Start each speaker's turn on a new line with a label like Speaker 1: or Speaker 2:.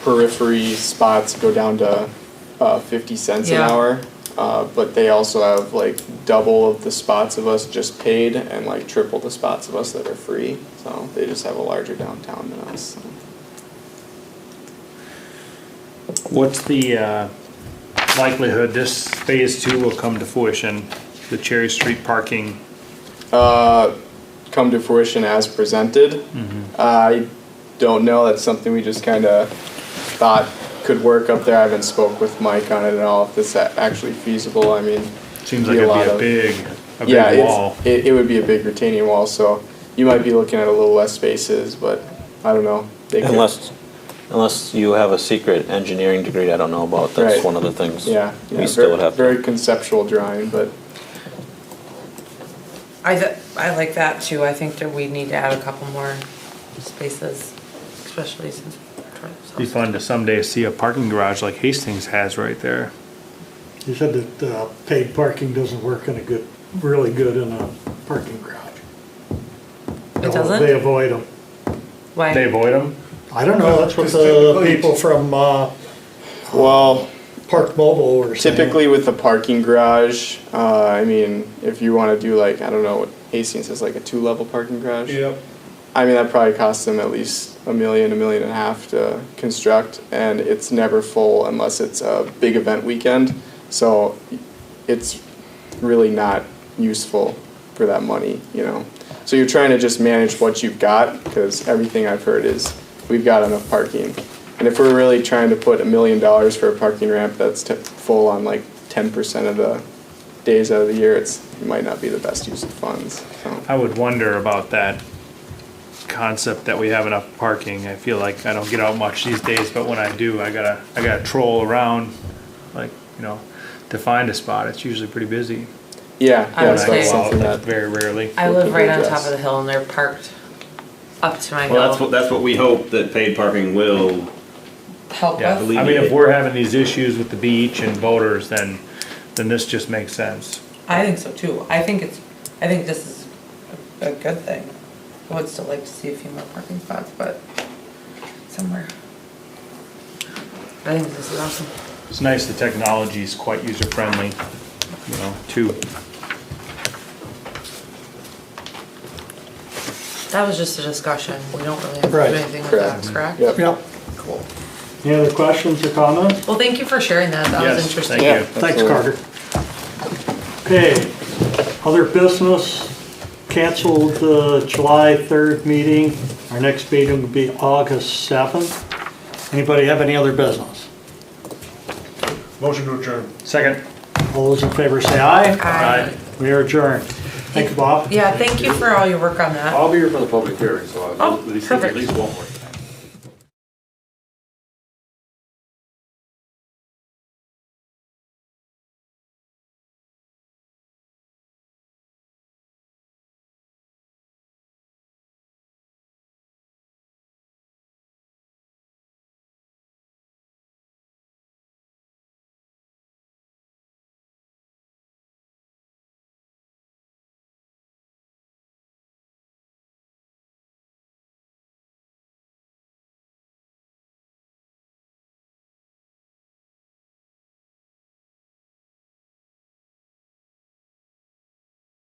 Speaker 1: periphery spots go down to uh, 50 cents
Speaker 2: Yeah.
Speaker 1: an hour. Uh, but they also have like double of the spots of us just paid and like triple the spots of us that are free. So they just have a larger downtown than us.
Speaker 3: What's the uh, likelihood this phase two will come to fruition, the Cherry Street parking?
Speaker 1: Uh, come to fruition as presented.
Speaker 3: Mm-hmm.
Speaker 1: I don't know. That's something we just kind of thought could work up there. I haven't spoke with Mike on it at all. If this a- actually feasible, I mean,
Speaker 3: Seems like it'd
Speaker 1: lot
Speaker 3: be a
Speaker 1: of-
Speaker 3: big, a
Speaker 1: yeah,
Speaker 3: big wall.
Speaker 1: It's, it, it would be a big retaining wall, so you might be looking at a little less spaces, but I don't know. They could-
Speaker 4: Unless, unless you have a secret engineering degree I don't know about,
Speaker 1: Right.
Speaker 4: that's one of the things.
Speaker 1: yeah, yeah,
Speaker 4: We still
Speaker 1: ver-
Speaker 4: would have to.
Speaker 1: very conceptual drawing, but
Speaker 2: I, th- I like that too. I think that we need to add a couple more spaces, especially since.
Speaker 3: Be fun to someday see a parking garage like Hastings has right there.
Speaker 5: You said that uh, paid parking doesn't work in a good, really good in a parking garage.
Speaker 2: It doesn't?
Speaker 5: They avoid them.
Speaker 2: Why?
Speaker 3: They avoid them?
Speaker 5: I don't know, that's what the people from uh,
Speaker 4: Oh,
Speaker 1: well,
Speaker 5: Park Mobile were saying.
Speaker 1: typically with the parking garage, uh, I mean, if you want to do like I don't know what Hastings is like a two level parking garage.
Speaker 5: Yep.
Speaker 1: I mean, that probably costs them at least a million, a million and a half to construct, and it's never full unless it's a big event weekend. So it's really not useful for that money, you know. So you're trying to just manage what you've got, because everything I've heard is we've got enough parking. And if we're really trying to put a million dollars for a parking ramp that's t- full on like 10% of the days out of the year, it's, it might not be the best use of funds. So.
Speaker 3: I would wonder about that concept that we have enough parking. I feel like I don't get out much these days, but when I do, I gotta, I gotta troll around, like, you know, to find a spot. It's usually pretty busy.
Speaker 1: Yeah,
Speaker 2: I
Speaker 1: yeah, so
Speaker 2: would
Speaker 3: When I go
Speaker 2: say-
Speaker 1: that's
Speaker 3: out,
Speaker 1: something
Speaker 3: like,
Speaker 1: that
Speaker 3: very rarely.
Speaker 2: I live right on top
Speaker 1: Yes.
Speaker 2: of the hill and they're parked up to my
Speaker 6: Well, that's what,
Speaker 2: hill.
Speaker 6: that's what we hope that paid parking will,
Speaker 2: Help
Speaker 3: Yeah, I
Speaker 2: with.
Speaker 6: believe-
Speaker 3: mean, if we're having these issues with the beach and boaters, then, then this just makes sense.
Speaker 2: I think so too. I think it's, I think this is a good thing. I would still like to see a few more parking spots, but somewhere. I think this is awesome.
Speaker 3: It's nice the technology is quite user friendly, you know, too.
Speaker 2: That was just a discussion. We don't really have to do
Speaker 5: Right.
Speaker 2: anything with that,
Speaker 1: Correct.
Speaker 2: correct?
Speaker 1: Yep.
Speaker 5: Yep.
Speaker 2: Cool.
Speaker 5: Any other questions or comments?
Speaker 2: Well, thank you for sharing that. That was
Speaker 3: Yes,
Speaker 2: interesting.
Speaker 3: Thank you.
Speaker 5: Thanks,
Speaker 1: absolutely.
Speaker 5: Carter. Okay, other business, canceled the July 3rd meeting. Our next meeting will be August 7th. Anybody have any other business?
Speaker 7: Motion to adjourn.
Speaker 3: Second.
Speaker 5: All those in favor say aye.
Speaker 2: Hi.
Speaker 5: We are adjourned. Thank you, Bob.
Speaker 2: Yeah, thank you for all your work on that.
Speaker 7: I'll be here for the public hearing, so
Speaker 2: Oh,
Speaker 7: at least, at
Speaker 2: perfect.
Speaker 7: least one more.